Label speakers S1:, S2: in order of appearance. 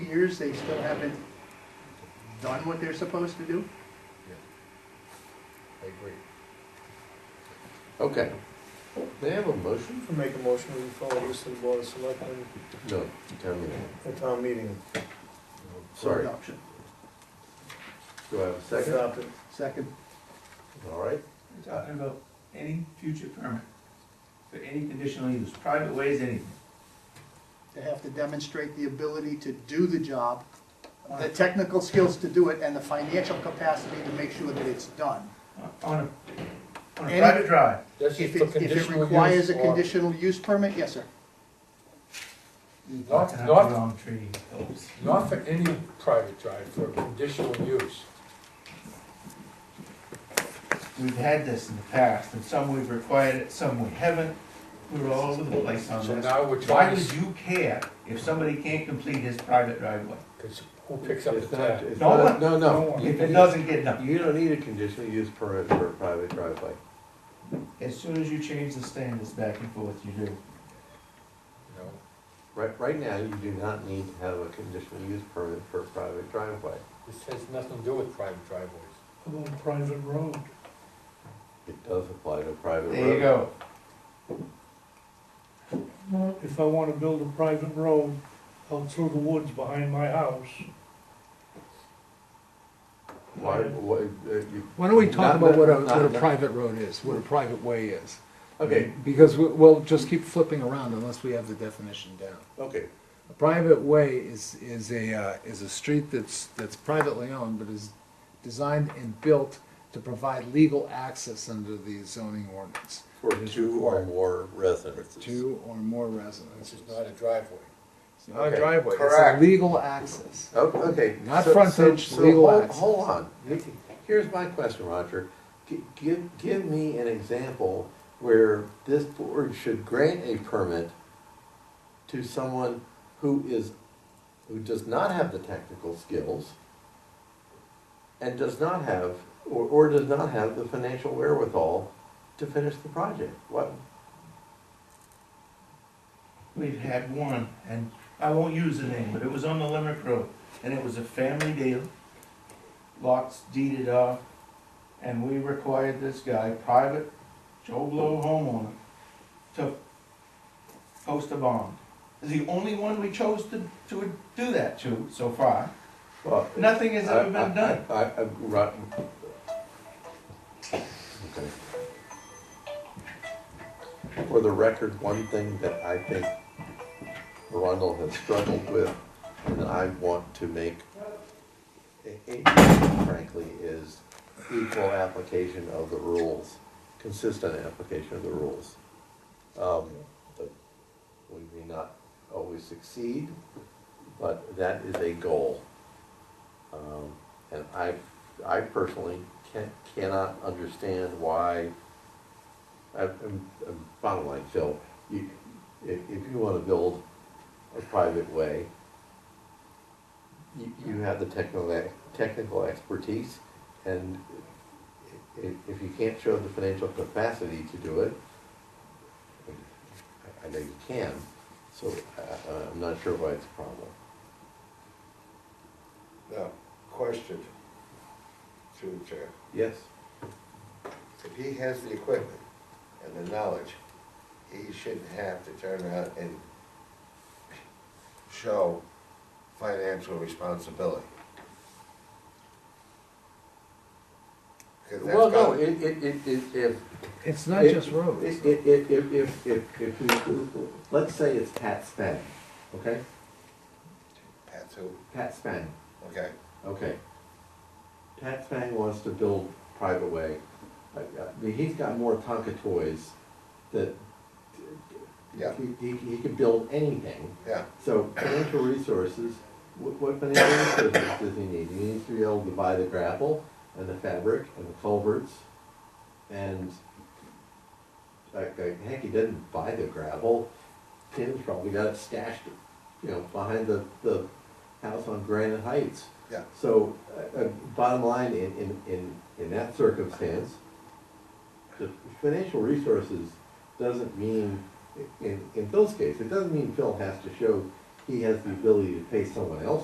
S1: years, they still haven't done what they're supposed to do?
S2: I agree. Okay. May I have a motion?
S3: I Make a motion to follow this to the Board of Selectmen
S2: No, tell me.
S3: at town meeting.
S2: Sorry,
S1: Adoption.
S2: do I have a second?
S3: Adopt it.
S1: Second,
S2: All right,
S4: We're talking about any future permit for any conditional use, private ways, anything.
S1: they have to demonstrate the ability to do the job, the technical skills to do it, and the financial capacity to make sure that it's done.
S4: On a, on a
S1: Any-
S4: private drive.
S5: That's just for
S1: If it, if it
S5: conditional use.
S1: requires a
S5: or-
S1: conditional use permit, yes, sir.
S5: Not,
S4: Not the
S5: not,
S4: wrong tree.
S5: not for any private drive, for conditional use.
S4: We've had this in the past, and some we've required it, some we haven't. We're all over the place on
S5: So
S4: this.
S5: now we're
S4: Um, Why
S5: trying,
S4: would you care if somebody can't complete his private driveway?
S5: because who picks up the tab?
S2: it's
S4: No
S2: not,
S4: one-
S2: no, no.
S4: If it
S2: You
S4: doesn't get done,
S2: you don't need a conditional use permit for a private driveway.
S4: as soon as you change the standards back and forth, you do.
S5: No.
S2: Right, right now, you do not need to have a conditional use permit for a private driveway.
S5: This has nothing to do with private driveways.
S6: on a private road.
S2: It does apply to a private road.
S4: There you go.
S6: If I wanna build a private road out through the woods behind my house,
S2: Why, why, uh, you,
S7: Why don't we
S2: Not-
S7: talk about what a,
S2: not-
S7: what a
S2: not-
S7: private road is, what a private way is?
S2: okay,
S7: Because we- we'll just keep flipping around unless we have the definition down.
S2: okay,
S7: A private way is, is a, uh, is a street that's, that's privately owned, but is designed and built to provide legal access under the zoning ordinance.
S2: for two or more residents.
S7: Two or more
S5: This
S7: residences.
S5: is not a driveway.
S7: It's not a
S2: Okay,
S7: driveway, it's a
S2: correct.
S7: legal access.
S2: Oh, Okay.
S7: Not
S2: so-
S7: frontage,
S2: so- so
S7: legal
S2: hold-
S7: access.
S2: Hold on, here's my question, Roger. Gi- Give, give me an example where this board should grant a permit to someone who is, who does not have the technical skills and does not have, or, or does not have the financial wherewithal to finish the project. What,
S4: We've had one, and I won't use the name, but it was on the Limerick Road, and it was a family deal. Lots deeded off, and we required this guy, private Joe Blow homeowner, to post a bond. The only one we chose to, to do that to so far.
S2: well,
S4: Nothing has ever
S2: I- I-
S4: been done.
S2: I, I, right. Okay. For the record, one thing that I think Arundel has struggled with, and I want to make, a- a- frankly, is equal application of the rules, consistent application of the rules. Um, but We may not always succeed, but that is a goal. Um, And I, I personally can, cannot understand why, I- I'm, I'm bottom line, Phil, you, if, if you wanna build a private way, you, you have the technical, technical expertise, and i- i- if you can't show the financial capacity to do it, I- I know you can, so I, I- I'm not sure why it's a problem.
S8: Now, question through the chair.
S2: Yes,
S8: If he has the equipment and the knowledge, he shouldn't have to turn around and show financial responsibility. 'Cause that's
S2: well, no,
S8: got-
S2: it, it, it, it- if,
S7: It's not
S2: It-
S7: just roads.
S2: If, if, if, if, if, if we, let's say it's Pat Spang, okay?
S8: That's who,
S2: Pat Spang,
S8: okay.
S2: okay. Pat Spang wants to build private way. I- I mean, he's got more Tonka toys that.
S8: Yeah.
S2: He, he, he could build anything.
S8: Yeah,
S2: So financial resources, what, what financial resources does he need? He needs to be able to buy the grapple and the fabric and the culverts and like, like, heck, he didn't buy the gravel. Tim's probably got it stashed, you know, behind the, the house on Granite Heights.
S8: yeah.
S2: So, uh, uh, bottom line, in, in, in, in that circumstance, the financial resources doesn't mean, in, in Phil's case, it doesn't mean Phil has to show he has the ability to pay someone else